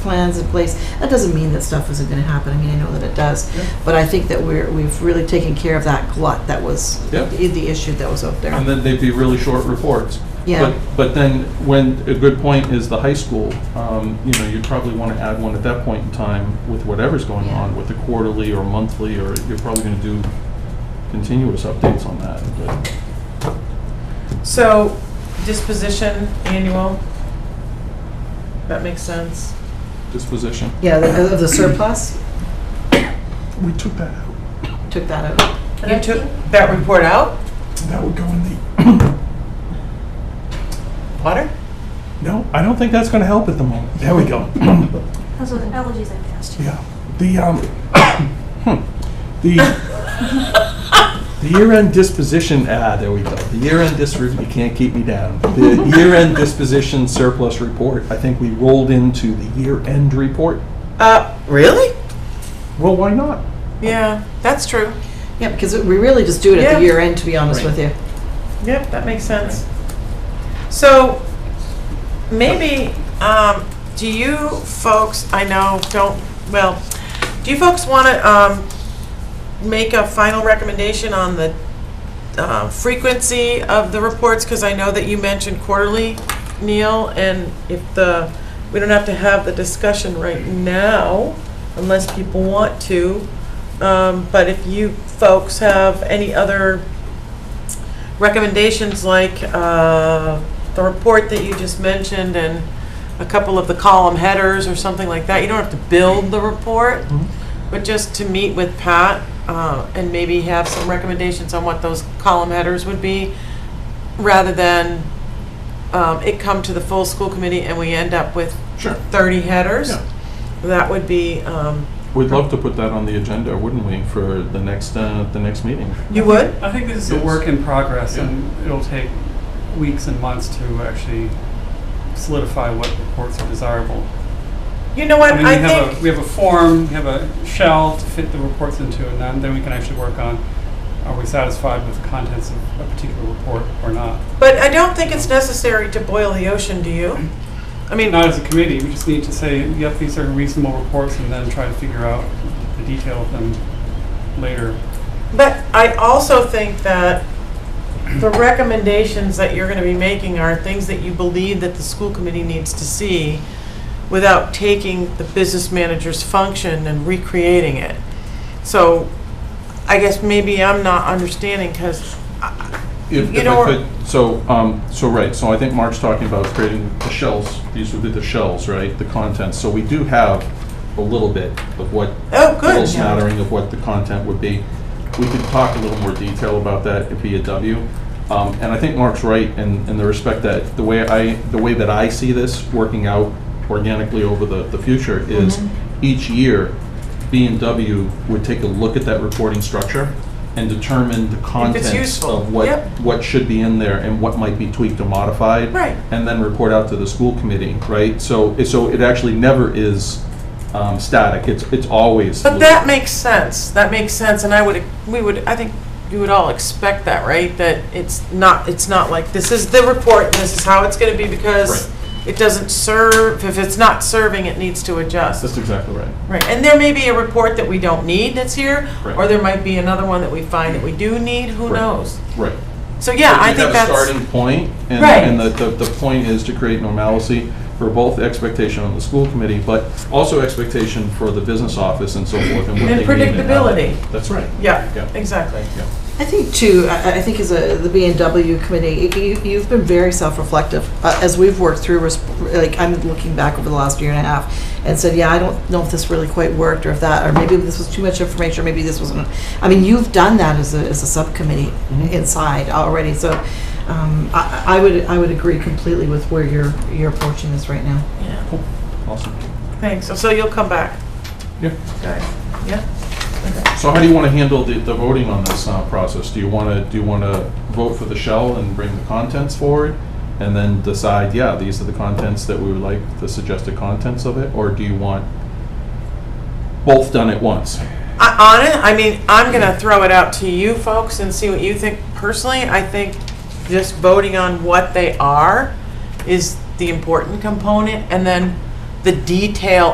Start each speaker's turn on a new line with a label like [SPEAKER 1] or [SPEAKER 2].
[SPEAKER 1] plans in place. That doesn't mean that stuff isn't going to happen. I mean, I know that it does.
[SPEAKER 2] Yeah.
[SPEAKER 1] But I think that we're, we've really taken care of that glut that was,
[SPEAKER 2] Yeah.
[SPEAKER 1] the the issue that was out
[SPEAKER 2] And
[SPEAKER 1] there.
[SPEAKER 2] then they'd be really short reports.
[SPEAKER 1] Yeah.
[SPEAKER 2] But, but then, when, a good point is the high school, um, you know, you'd probably want to add one at that point in time with whatever's going
[SPEAKER 1] Yeah.
[SPEAKER 2] on, with the quarterly or monthly, or you're probably going to do continuous updates on that. but-
[SPEAKER 3] So disposition annual, that makes sense.
[SPEAKER 2] Disposition.
[SPEAKER 1] Yeah, the, of the surplus,
[SPEAKER 4] We took that out.
[SPEAKER 1] took that out.
[SPEAKER 3] You took that report out,
[SPEAKER 4] That would go in the,
[SPEAKER 3] Potter?
[SPEAKER 4] no,
[SPEAKER 2] I don't think that's going to help at the moment.
[SPEAKER 4] there we go.
[SPEAKER 5] Those are the allergies I passed you.
[SPEAKER 4] Yeah, the, um, hmm, the,
[SPEAKER 2] The year-end disposition, ah, there we go. The year-end dis, you can't keep me down. The year-end disposition surplus report, I think we rolled into the year-end report.
[SPEAKER 3] Uh, really?
[SPEAKER 2] Well, why not?
[SPEAKER 3] Yeah, that's true.
[SPEAKER 1] Yeah, because we really just do it at the
[SPEAKER 3] Yeah.
[SPEAKER 1] year end, to be honest with you.
[SPEAKER 3] Yep, that makes sense. So maybe, um, do you folks, I know, don't, well, do you folks want to, um, make a final recommendation on the, uh, frequency of the reports? Because I know that you mentioned quarterly, Neil, and if the, we don't have to have the discussion right now unless people want to. Um, but if you folks have any other recommendations like uh, the report that you just mentioned and a couple of the column headers or something like that. You don't have to build the report,
[SPEAKER 6] Mm-hmm.
[SPEAKER 3] but just to meet with Pat uh, and maybe have some recommendations on what those column headers would be, rather than um, it come to the full school committee and we end up with
[SPEAKER 2] Sure.
[SPEAKER 3] 30 headers.
[SPEAKER 2] Yeah.
[SPEAKER 3] That would be, um,
[SPEAKER 2] We'd love to put that on the agenda, wouldn't we, for the next, uh, the next meeting?
[SPEAKER 3] you would?
[SPEAKER 6] I think this is a work in progress, and it'll take weeks and months to actually solidify what reports are desirable.
[SPEAKER 3] You know what,
[SPEAKER 6] mean,
[SPEAKER 3] I
[SPEAKER 6] we have a,
[SPEAKER 3] think,
[SPEAKER 6] we have a form, we have a shell to fit the reports into, and then, then we can actually work on are we satisfied with the contents of a particular report or not?
[SPEAKER 3] but I don't think it's necessary to boil the ocean, do you? I mean,
[SPEAKER 6] Not as a committee, we just need to say, yep, these are reasonable reports, and then try to figure out the detail of them later.
[SPEAKER 3] But I also think that the recommendations that you're going to be making are things that you believe that the school committee needs to see without taking the business manager's function and recreating it. So I guess maybe I'm not understanding because,
[SPEAKER 2] If,
[SPEAKER 3] You
[SPEAKER 2] if
[SPEAKER 3] know,
[SPEAKER 2] I could, so, um, so, right, so I think Mark's talking about creating the shells, these would be the shells, right, the contents. So we do have a little bit of what,
[SPEAKER 3] oh,
[SPEAKER 2] a little
[SPEAKER 3] good.
[SPEAKER 2] smattering of what the content would be. We could talk a little more detail about that if via W. Um, and I think Mark's right in, in the respect that, the way I, the way that I see this working out organically over the, the future is
[SPEAKER 3] Mm-hmm.
[SPEAKER 2] each year, B and W would take a look at that reporting structure and determine the contents
[SPEAKER 3] useful,
[SPEAKER 2] of what,
[SPEAKER 3] yep.
[SPEAKER 2] what should be in there and what might be tweaked or modified.
[SPEAKER 3] Right.
[SPEAKER 2] And then report out to the school committee, right? So, so it actually never is um, static, it's, it's always.
[SPEAKER 3] But that makes sense. That makes sense, and I would, we would, I think you would all expect that, right? That it's not, it's not like, this is the report, and this is how it's gonna be, because it doesn't serve, if it's not serving, it needs to
[SPEAKER 2] That's
[SPEAKER 3] adjust.
[SPEAKER 2] exactly right.
[SPEAKER 3] Right, and there may be a report that we don't need that's here, or
[SPEAKER 2] Right.
[SPEAKER 3] there might be another one that we find that we do need, who
[SPEAKER 2] Right.
[SPEAKER 3] knows?
[SPEAKER 2] Right.
[SPEAKER 3] So, yeah, I think
[SPEAKER 2] You have a
[SPEAKER 3] that's,
[SPEAKER 2] starting point, and,
[SPEAKER 3] Right.
[SPEAKER 2] and the, the, the point is to create normalcy for both expectation on the school committee, but also expectation for the business office and so forth, and what they
[SPEAKER 3] And
[SPEAKER 2] need how-
[SPEAKER 3] predictability.
[SPEAKER 2] That's right. Yeah.
[SPEAKER 3] yeah, exactly.
[SPEAKER 1] I think too, I I think as a, the B and W committee, you- you've been very self-reflective. Uh, As we've worked through, res- like, I'm looking back over the last year and a half and said, yeah, I don't know if this really quite worked or if that, or maybe this was too much information, or maybe this wasn't. I mean, you've done that as a, as a subcommittee
[SPEAKER 2] Mhm.
[SPEAKER 1] inside already, so um, I I would, I would agree completely with where you're, you're approaching this right now.
[SPEAKER 3] Yeah,
[SPEAKER 2] Awesome.
[SPEAKER 3] thanks. So- So you'll come back?
[SPEAKER 2] Yeah.
[SPEAKER 3] Okay, yeah?
[SPEAKER 2] So how do you want to handle the, the voting on this uh, process? Do you want to, do you want to vote for the shell and bring the contents forward? And then decide, yeah, these are the contents that we would like, the suggested contents of it? Or do you want both done at once?
[SPEAKER 3] I, on it, I mean, I'm gonna throw it out to you folks and see what you think. Personally, I think just voting on what they are is the important component, and then the detail